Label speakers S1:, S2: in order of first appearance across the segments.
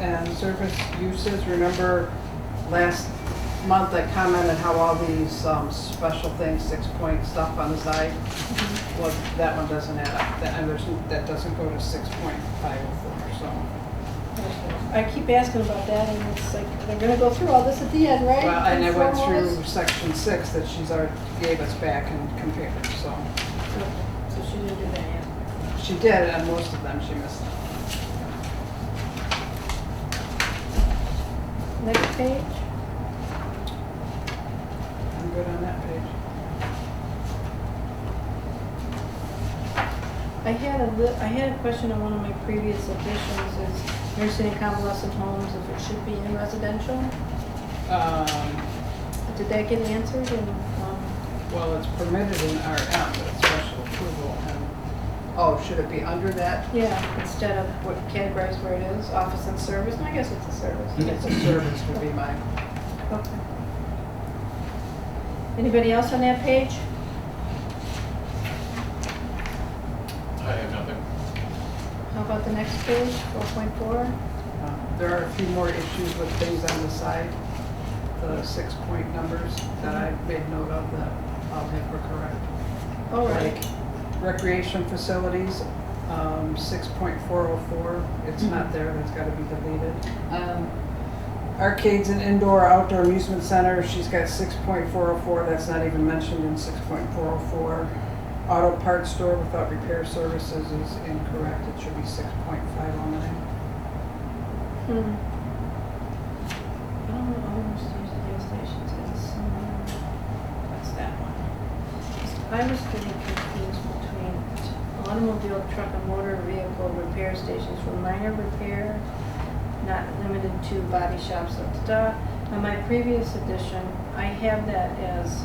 S1: and surface uses, remember last month I commented how all these um, special things, six-point stuff on the side? Well, that one doesn't add up, that, and there's, that doesn't go to six point five oh four, so.
S2: I keep asking about that and it's like, they're gonna go through all this at the end, right?
S1: Well, and I
S2: Confirm
S1: went
S2: all
S1: through
S2: this?
S1: section six that she's already gave us back and compared, so.
S2: So she didn't do that yet.
S1: She did, and most of them she missed.
S2: Next page,
S1: I'm good on that page.
S2: I had a li- I had a question on one of my previous editions, is nursing and convalescent homes, if it should be in residential?
S1: Um,
S2: Did that get answered and, um,
S1: well, it's permitted in RM, but it's special approval and, oh, should it be under that?
S2: yeah, instead of what categorized where it is, office and service, I guess it's a service.
S1: It's a service would be mine.
S2: Okay. Anybody else on that page?
S3: I have nothing.
S2: How about the next page, four point four?
S1: Uh, There are a few more issues with things on the side, the six-point numbers that I made note of that I'll have her correct.
S2: All right.
S1: Like Recreation facilities, um, six point four oh four, it's not there, that's gotta be deleted. Um, Arcades and indoor outdoor amusement center, she's got six point four oh four, that's not even mentioned in six point four oh four. Auto parts store without repair services is incorrect, it should be six point five oh nine.
S2: Hmm. I don't know, Homer's used the gas stations as somewhere. That's that one. I was getting confused between automobile, truck, and motor vehicle repair stations for minor repair, not limited to body shops, da, da, da. On my previous edition, I have that as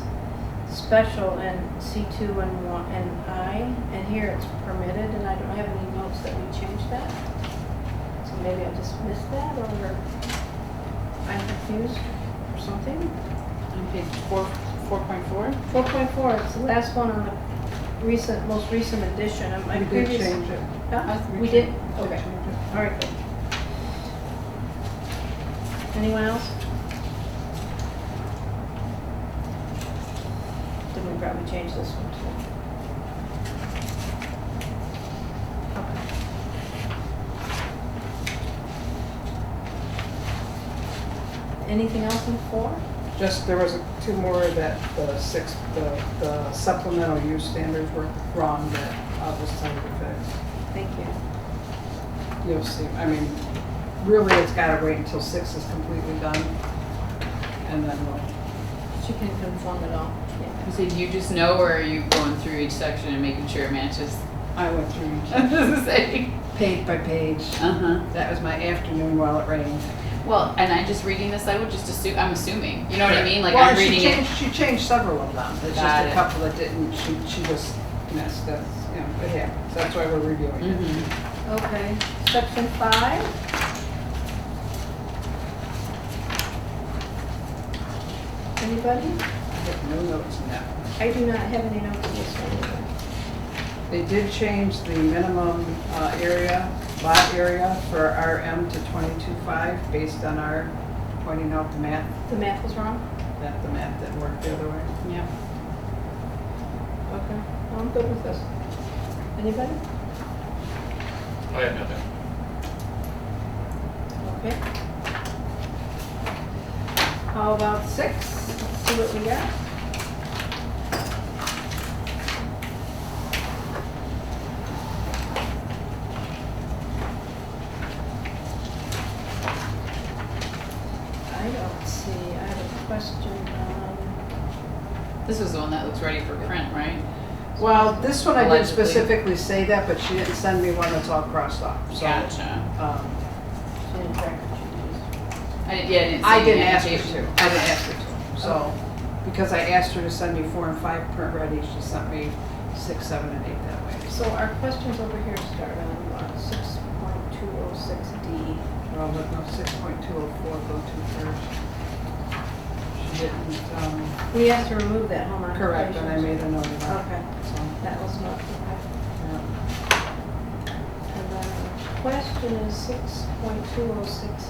S2: special in C two and one, and I, and here it's permitted, and I don't have any notes that we changed that. So maybe I just missed that or I'm confused or something.
S1: On page four, four point four?
S2: Four point four, it's the last one on the recent, most recent edition. Am I
S1: We did
S2: previous-
S1: change it.
S2: Huh? We did?
S1: changed-
S2: Okay,
S1: changed it.
S2: all right. good. Anyone else? Then we probably change this one too. Okay. Anything else in four?
S1: Just, there was two more that the six, the the supplemental use standards were wrong that I'll just tell you to
S2: Thank you.
S1: fix. You'll see, I mean, really, it's gotta wait until six is completely done. And then we'll,
S2: She can confirm it all.
S4: So you just know, or are you going through each section and making sure it matches?
S1: I went through each
S4: I'm just saying.
S1: page by page.
S4: Uh huh.
S1: That was my afternoon while it rained.
S4: Well, and I just reading this, I would just assume. I'm assuming. You know what I mean? Like
S1: Well,
S4: I'm
S1: and she
S4: reading it.
S1: changed- She changed several of them, it's just
S4: Got
S1: a
S4: it.
S1: couple that didn't, she, she just missed, that's, you know, it happens, that's why we're reviewing it.
S4: Mm-hmm.
S2: Okay, section five. Anybody?
S1: I have no notes in that.
S2: I do not have any notes on this one. either.
S1: They did change the minimum uh, area, lot area for RM to 22.5 based on our pointing out the map,
S2: The math was wrong?
S1: that the map that worked the other way.
S4: Yeah.
S2: Okay, well, I'm good with this. Anybody?
S3: I have nothing.
S2: Okay. How about six? Let's see what we got. I don't see, I have a question on,
S4: This was the one that looks ready for print, right?
S1: Well, this one I did
S4: Allegedly.
S1: specifically say that, but she didn't send me one that's all crossed off, so.
S4: Gotcha.
S1: um,
S2: she didn't track what you used.
S4: I didn't, yeah, I didn't.
S1: I
S4: see
S1: didn't
S4: any
S1: ask her
S4: annotation.
S1: to, I didn't ask her to, so, because I asked her to send me four and five print ready, she sent me six, seven, and eight that way.
S2: So our questions over here start on six point two oh six D.
S1: Well, but no, 6.204 go to first. She didn't, um.
S2: We have to remove that home occupation.
S1: Correct, and I made a note of that.
S2: Okay.
S1: So,
S2: That was not, okay.
S1: yeah.
S2: And then question is six point two oh six